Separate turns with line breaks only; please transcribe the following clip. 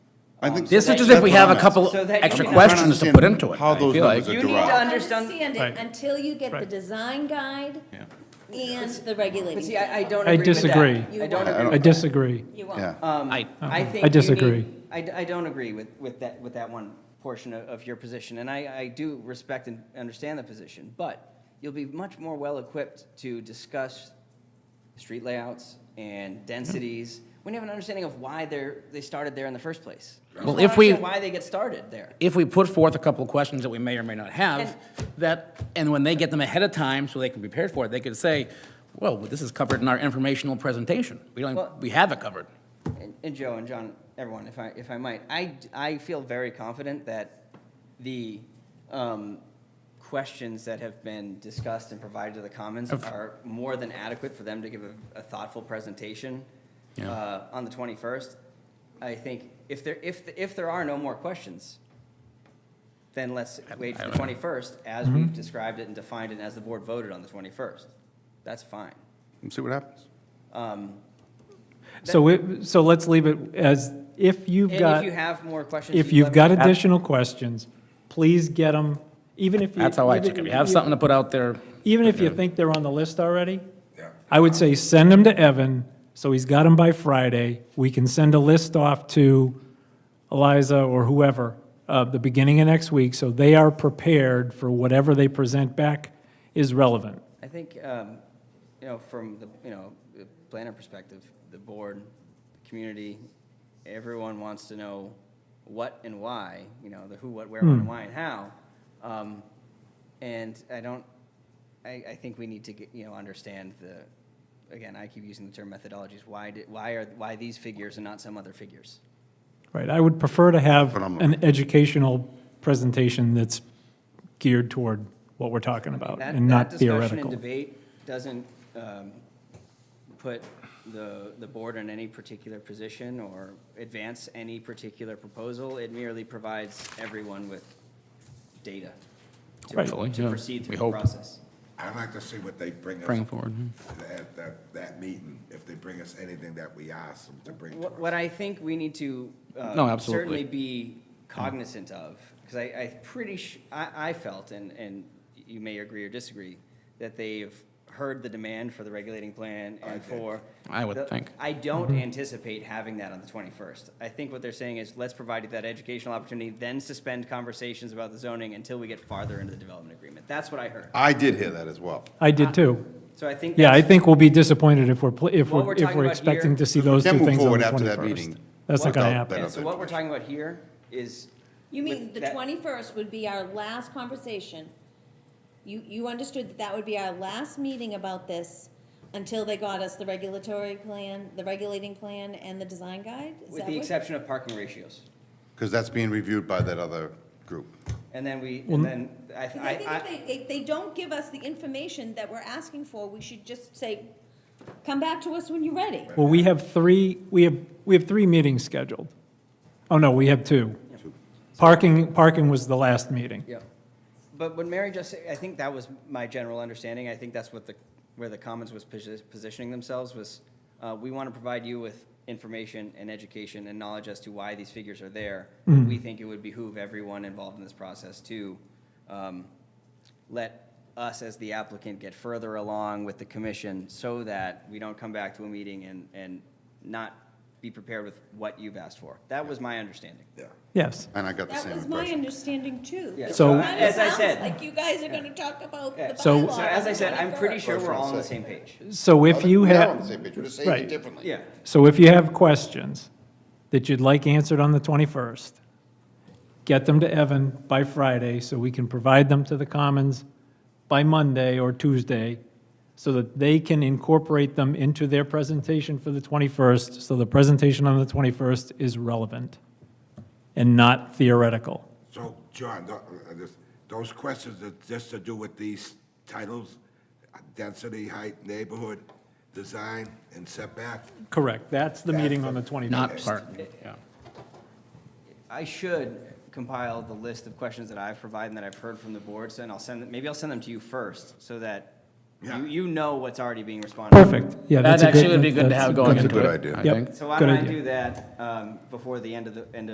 I think.
This is
that's
just if we have a
what I'm
couple
asking.
So that-
extra
I'm trying to
questions to put
understand
into it,
how
I
those
feel like.
numbers are
You need
derived.
to understand.
Understand
Right.
it until you get the
Right.
design guide
Yeah.
and the regulating.
But see, I, I don't
I
agree with that.
disagree.
I don't
I
agree.
don't-
I disagree.
You
Yeah.
won't.
Um,
I-
I think.
I
you
disagree.
need- I, d- I don't agree with, with that, with that one portion of, of your position, and I, I do respect and understand the position, but you'll be much more well-equipped to discuss street layouts and densities, when you have an understanding of why they're, they started there in the first place. You
Well,
just
if
wanna
we-
understand Why they get started there.
if we put forth a couple of questions that we may or may not have, that, and when they get them ahead of time, so they can prepare for it, they could say, well, this is covered in our informational presentation. We
Well-
don't, we have it covered.
And- And Joe and John, everyone, if I, if I might, I, I feel very confident that the um, questions that have been discussed and provided to the Commons are more than adequate for them to give a- a thoughtful presentation
Yeah.
uh, on the 21st. I think if there, if, if there are no more questions, then let's wait for the 21st as
Mm-hmm.
we've described it and defined it as the board voted on the 21st. That's fine. Um,
And see what happens.
So we, so let's leave it as, if you've
And if
got,
you have more questions.
if
you
you've
let me
got
know.
additional questions, please get them, even if you.
That's how I took it. We have
even-
something to put out there.
Even if you think they're on the list already, I would say send them to Evan, so he's got them by Friday. We can send a list off to Eliza or whoever, uh, the beginning of next week, so they are prepared for whatever they present back is relevant.
I think, um, you know, from the, you know, the planner perspective, the board, the community, everyone wants to know what and why, you know, the who, what, where, when, and why, and how. Um, And I don't, I, I think we need to, get you know, understand the, again, I keep using the term methodologies, why did, why are, why these figures and not some other figures?
Right, I would prefer to have
Phenomenal.
an educational presentation that's geared toward what we're talking about
That-
and not
That discussion and
theoretical.
debate doesn't um, put the, the board in any particular position or advance any particular proposal. It merely provides everyone with data to-
Right.
Hopefully,
to
yeah.
proceed
We
through the
hope.
process.
I'd like to see what they bring us.
Bring forward, hmm.
At that, that meeting, if they bring us anything that we asked them to bring. to
What what I think we need to. uh,
No, absolutely.
Certainly be cognizant of, because I, I pretty, sh- I, I felt, and, and you may agree or disagree, that they've heard the demand for the regulating plan and for.
I would
the-
think.
I
Mm-hmm.
don't anticipate having that on the twenty-first. I think what they're saying is, let's provide you that educational opportunity, then suspend conversations about the zoning until we get farther into the development agreement. That's what I heard.
I did hear that as well.
I
Uh,
did too.
So I think.
Yeah, I
that's-
think we'll be disappointed if we're, pl- if
What
we're,
we're
if
talking
we're
about
expecting
here-
to see those
Can't
two
move
things on
forward
the
after that
21st.
meeting
That's not going to
without
happen.
that.
And so what we're talking about here is.
You mean
with
the
that-
twenty-first would be our last conversation? You, you understood that that would be our last meeting about this until they got us the regulatory plan, the regulating plan and the design guide? Is
With
that
the
what-
exception of parking ratios.
Because that's being reviewed by that other group.
And then we, and then, I,
Because I think
I, I,
if they, if they don't give us the information that we're asking for, we should just say, come back to us when you're ready.
Well, we have three, we have, we have three meetings scheduled. Oh, no, we have two. Parking, parking was the last meeting.
yeah. But what Mary just, said, I think that was my general understanding, I think that's what the, where the Commons was posi- positioning themselves was, uh, we want to provide you with information and education and knowledge as to why these figures are there. We think it would behoove everyone involved in this process to, um, let us as the applicant get further along with the commission so that we don't come back to a meeting and, and not be prepared with what you've asked for. That was my understanding.
Yes.
And I got the
That
same
was my
impression.
understanding too.
Yeah.
It
So-
kinda
As I
sounds
said-
Like you guys are gonna talk about the
Yeah.
So-
bylaw.
So as I said, I'm pretty sure we're all on the
First
same page.
So if you
We're not on the
have,
same page, we're just saying it
Right.
differently.
Yeah.
so if you have questions that you'd like answered on the 21st, get them to Evan by Friday so we can provide them to the Commons by Monday or Tuesday so that they can incorporate them into their presentation for the 21st, so the presentation on the 21st is relevant and not theoretical.
So, John, tho- uh, this- those questions are just to do with these titles, uh, density, height, neighborhood, design, and setback?
Correct, that's the meeting on the 21st.
not part, yeah.
I should compile the list of questions that I've provided and that I've heard from the boards, and I'll send, them. maybe I'll send them to you first, so that
Yeah.
you, you know what's already being responded. to.
Perfect, yeah,
That
that's a good.
actually would be good to
that's-
have going
that's a
into it.
good idea.
I
Yep.
think.
So why
Good
don't I
idea.
do that, um, before the end of the, end of